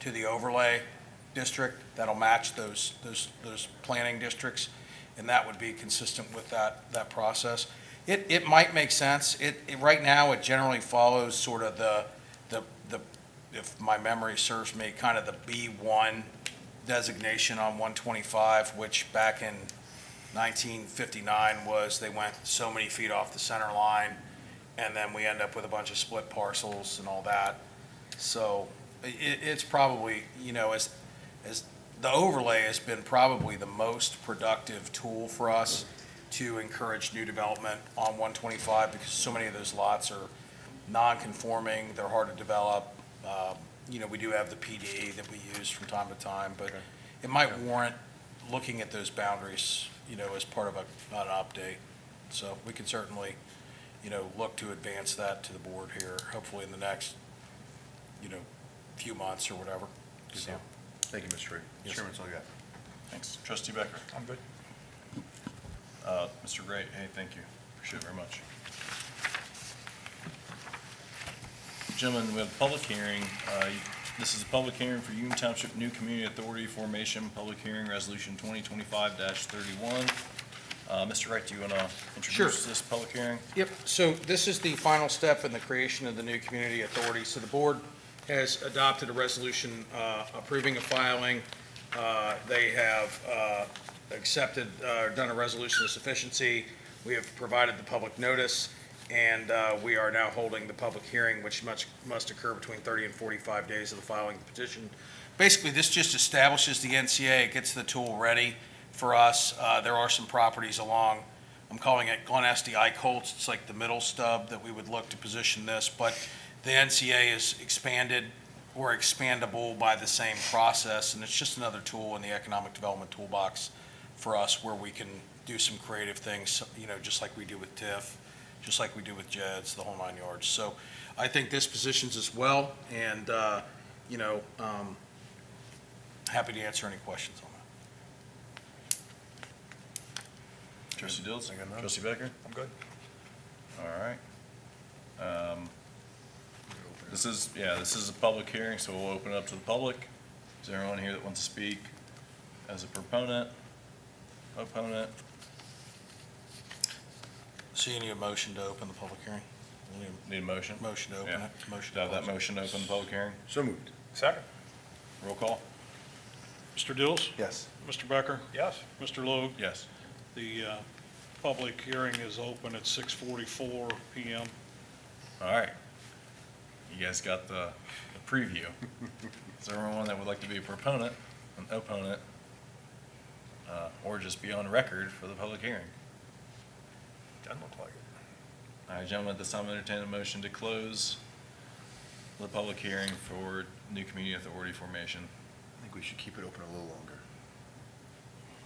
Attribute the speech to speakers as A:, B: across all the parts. A: to the overlay district that'll match those, those, those planning districts, and that would be consistent with that, that process. It, it might make sense. It, it, right now, it generally follows sort of the, the, the, if my memory serves me, kind of the B1 designation on 125, which back in 1959 was they went so many feet off the center line, and then we end up with a bunch of split parcels and all that. So i- i it's probably, you know, as, as, the overlay has been probably the most productive tool for us to encourage new development on 125, because so many of those lots are non-conforming, they're hard to develop. Um, You know, we do have the PD that we use from time to time, but it might warrant looking at those boundaries, you know, as part of a, an update. So we can certainly, you know, look to advance that to the board here, hopefully in the next, you know, few months or whatever. So,
B: Thank you, Mr. Reed.
A: Yes,
B: Chairman, it's all you got.
C: Thanks. Trustee Becker? I'm good. Uh, Mr. Gray, hey, thank you. Appreciate it very much. Gentlemen, we have a public hearing. Uh, This is a public hearing for Union Township New Community Authority Formation, Public Hearing Resolution 2025-31. Uh, Mr. Wright, do you want to introduce this public hearing?
A: Yep, so this is the final step in the creation of the new community authority. So the board has adopted a resolution uh, approving a filing. Uh, They have uh, accepted, uh, done a resolution of sufficiency. We have provided the public notice, and uh, we are now holding the public hearing, which must, must occur between 30 and 45 days of the filing of the petition. Basically, this just establishes the NCA, It gets the tool ready for us. Uh, There are some properties along I'm calling it Glen Estee Colts. It's like the middle stub that we would look to position this, but the NCA is expanded or expandable by the same process, and it's just another tool in the economic development toolbox for us where we can do some creative things, you know, just like we do with TIF, just like we do with JEDs, the whole nine yards. So I think this positions us well, and, uh, you know, um, happy to answer any questions on that.
C: Trustee Dills?
B: I got none.
C: Trustee Becker?
B: I'm good.
C: All right. Um, This is, yeah, this is a public hearing, so we'll open it up to the public. Is there anyone here that wants to speak as a proponent, opponent?
A: So you need a motion to open the public hearing? We need a
C: Need a motion?
A: Motion to open
C: Yeah.
A: it. Motion
C: Should I
A: to
C: have that
A: close it.
C: motion to open the public hearing?
B: So moved.
D: Second.
C: Roll call?
D: Mr. Dills?
B: Yes.
D: Mr. Becker? Yes. Mr. Logue?
C: Yes.
D: The uh, public hearing is open at 6:44 PM.
C: All right. You guys got the the preview. Is there anyone that would like to be a proponent, an opponent, uh, or just be on record for the public hearing?
D: Doesn't look like it.
C: All right, gentlemen, at this time, I entertain a motion to close the public hearing for new community authority formation.
B: I think we should keep it open a little longer.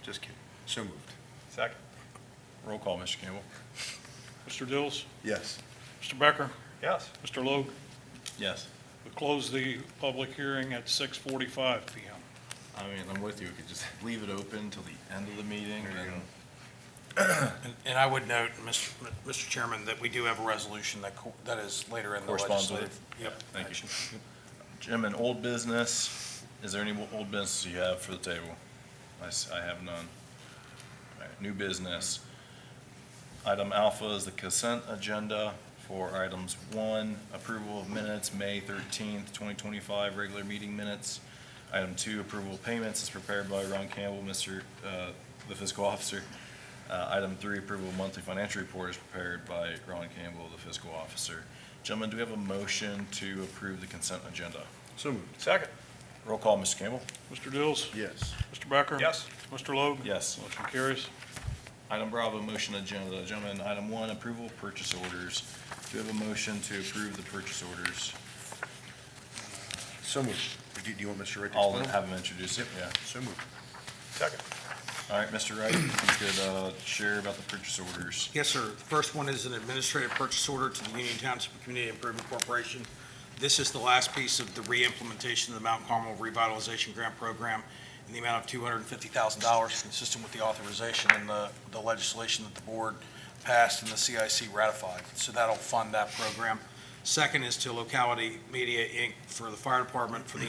B: Just kidding. So moved.
D: Second.
C: Roll call, Mr. Campbell.
D: Mr. Dills?
B: Yes.
D: Mr. Becker? Yes. Mr. Logue?
C: Yes.
D: We close the public hearing at 6:45 PM.
C: I mean, I'm with you. We could just leave it open till the end of the meeting, and then
A: And- And I would note, Mr. Mr. Chairman, that we do have a resolution that, co- that is later in the
C: Corresponds
A: legislative.
C: with it.
A: Yep.
C: Thank you. Jim, in old business, is there any old business you have for the table? I, s- I have none. All right, New business. Item alpha is the consent agenda for items one, approval of minutes, May thirteenth, twenty twenty-five, regular meeting minutes. Item two, approval of payments is prepared by Ron Campbell, Mr., uh, the fiscal officer. Uh, item three, approval of monthly financial report is prepared by Ron Campbell, the fiscal officer. Gentlemen, do we have a motion to approve the consent agenda?
B: So moved.
D: Second.
C: Roll call, Mr. Campbell?
D: Mr. Dills?
B: Yes.
D: Mr. Becker?
C: Yes.
D: Mr. Logue?
C: Yes.
D: Motion carries.
C: Item Bravo, motion agenda. Gentlemen, item one, approval of purchase orders. Do we have a motion to approve the purchase orders?
B: So moved. Do do you want Mr. Wright to
C: I'll
B: explain?
C: have them introduce it, yeah.
B: So moved.
D: Second.
C: All right, Mr. Wright, if you could uh, share about the purchase orders.
A: Yes, sir. The first one is an administrative purchase order to the Union Township Community Improvement Corporation. This is the last piece of the re-implementation of the Mount Carmel Revitalization Grant Program in the amount of two hundred and fifty thousand dollars, consistent with the authorization and the, the legislation that the board passed and the CIC ratified. So that'll fund that program. Second is to Locality Media, Inc. for the fire department for the